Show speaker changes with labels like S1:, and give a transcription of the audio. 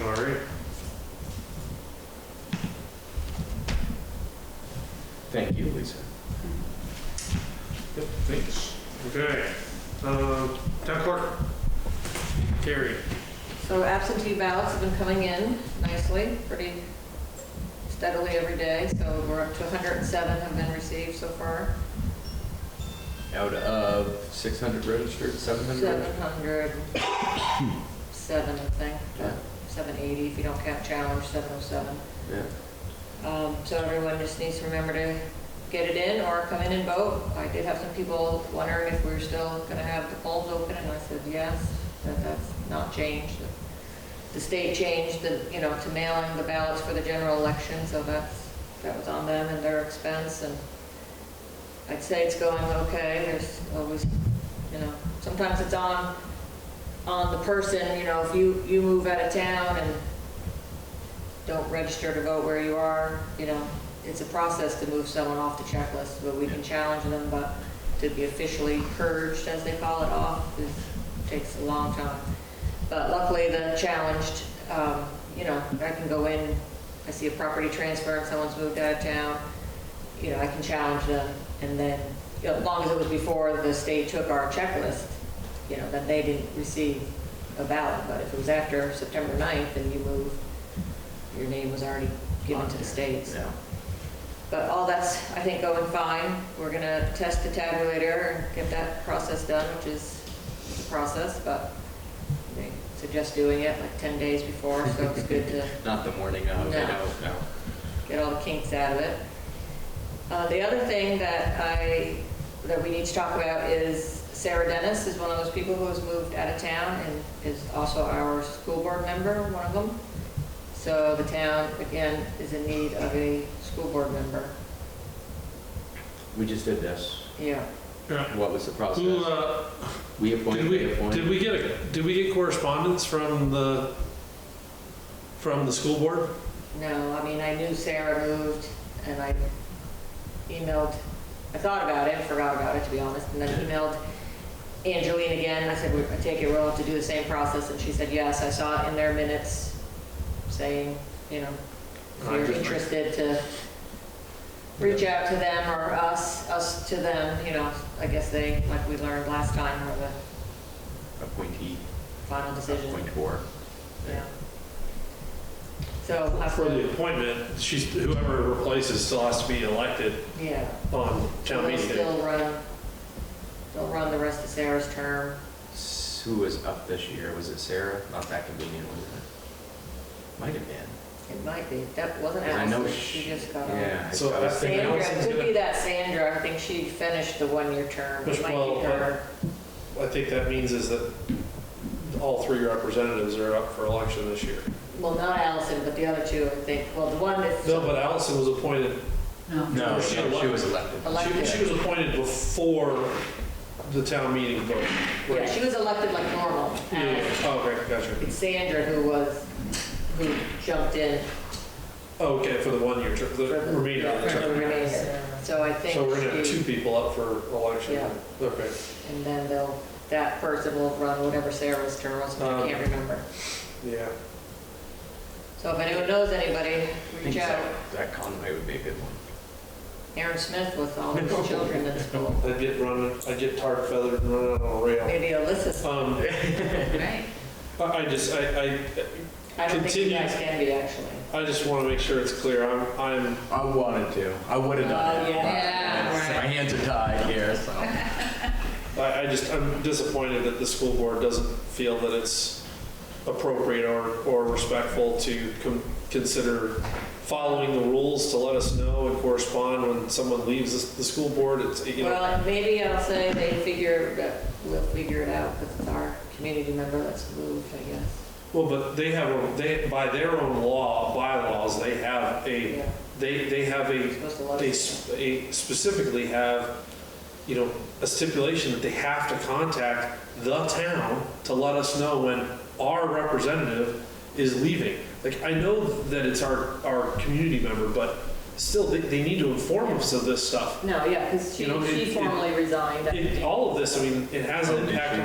S1: All right.
S2: Thank you, Lisa.
S1: Yep, thanks. Okay. Um, Town clerk. Terry.
S3: So absentee ballots have been coming in nicely, pretty steadily every day, so we're up to 107 have been received so far.
S2: Out of 600 registered, 700?
S3: 707, I think,
S2: Yeah.
S3: 780 if you don't count challenge, 707.
S2: Yeah.
S3: Um, So everyone just needs to remember to get it in or come in and vote. I did have some people wondering if we were still going to have the polls open, and I said, yes, that that's not changed. The state changed the, you know, to mailing the ballots for the general election, so that's, that was on them and their expense, and I'd say it's going okay. There's always, you know, sometimes it's on, on the person, you know, if you, you move out of town and don't register to vote where you are, you know, it's a process to move someone off the checklist, but we can challenge them, but to be officially purged, as they call it, off, is, takes a long time. But luckily, the challenged, um, you know, I can go in, I see a property transfer and someone's moved out of town, you know, I can challenge them, and then, you know, as long as it was before the state took our checklist, you know, then they didn't receive a ballot, but if it was after September 9th and you moved, your name was already given to the state, so. But all that's, I think, going fine. We're gonna test the tabulator and get that process done, which is a process, but they suggest doing it like 10 days before, so it's good to
S2: Not the morning of,
S3: No.
S2: no, no.
S3: get all the kinks out of it. Uh, The other thing that I, that we need to talk about is Sarah Dennis is one of those people who has moved out of town and is also our school board member, one of them. So the town, again, is in need of a school board member.
S2: We just did this.
S3: Yeah.
S1: Yeah.
S2: What was the
S1: Who,
S2: process?
S1: uh,
S2: We
S1: did
S2: appointed,
S1: we,
S2: they
S1: did
S2: appointed.
S1: we get, a- did we get correspondence from the, from the school board?
S3: No, I mean, I knew Sarah moved and I emailed, I thought about it, forgot about it to be honest, and then emailed Angeline again. I said, "We- I take it we'll have to do the same process. And she said, yes, I saw it in their minutes saying, you know, if
S1: I'm
S3: you're
S1: just-
S3: interested to reach out to them or us, us to them, you know, I guess they, like we learned last time, were the
S2: Appointee, uh,
S3: final decision.
S2: appointor.
S3: Yeah. So I
S1: For the
S3: flew,
S1: appointment, she's, whoever replaces still has to be elected
S3: yeah.
S1: on town
S3: They'll
S1: meeting day.
S3: still run, they'll run the rest of Sarah's term.
S2: S- Who was up this year? Was it Sarah? Not that convenient, was it? Might have been.
S3: It might be, that wasn't
S2: I know
S3: Allison,
S2: sh-
S3: she just got on.
S2: Yeah. I
S1: So
S2: thought-
S1: I think
S3: Sandra,
S1: Allison's
S3: it could
S1: gonna-
S3: be that Sandra, I think she finished the one-year term.
S1: Which
S3: It might be
S1: will-
S3: her.
S1: I think that means is that all three representatives are up for election this year.
S3: Well, not Allison, but the other two, I think, well, the one that's
S1: No, but Allison was appointed,
S2: No, no,
S1: Was she
S2: she was elected.
S1: she, she
S3: elected.
S1: was appointed before the town meeting vote.
S3: Yeah, she was elected like normal.
S1: Yeah,
S3: Allison.
S1: oh, okay, gotcha.
S3: It's Sandra who was, who jumped in
S1: Okay, for the one-year term, the
S3: for the
S1: remainder of the
S3: for the
S1: term.
S3: remainder. So I think
S1: So we're gonna have two
S3: she,
S1: people up for election.
S3: Yeah.
S1: Okay.
S3: and then they'll, that person will run whatever Sarah's term was, I
S1: Um,
S3: can't remember.
S1: Yeah.
S3: So if anyone knows anybody,
S2: I think
S3: reach out.
S2: Zach- Zach Conway would be a good one.
S3: Aaron Smith with all his children in school.
S1: I'd get run, I'd get tar feathered and run out on a rail.
S3: Maybe Alyssa's,
S1: Um,
S3: right?
S1: I I just, I,
S3: I don't think you
S1: Continue.
S3: guys can be, actually.
S1: I, I just want to make sure it's clear. I'm, I'm,
S4: I wanted to. I would have done
S3: Oh,
S4: it.
S3: yeah. Yeah,
S4: It's-
S3: right.
S4: My hands are tied here, so.
S1: I, I just, I'm disappointed that the school board doesn't feel that it's appropriate or, or respectful to con- consider following the rules to let us know and correspond when someone leaves the, the school board. It's, you know,
S3: Well, maybe I'll say they figure, that we'll figure it out, because it's our community member that's moved, I guess.
S1: well, but they have, a- they, by their own law, bylaws, they have a,
S3: Yeah,
S1: they, they have a
S3: supposed to let
S1: they
S3: us.
S1: s- they specifically have, you know, a stipulation that they have to contact the town to let us know when our representative is leaving. Like, I know that it's our, our community member, but still, they, they need to inform us of this stuff.
S3: No, yeah, because she
S1: You know, it-
S3: she
S1: it-
S3: formally resigned. I
S1: It-
S3: think.
S1: All of this, I mean, it has an impact on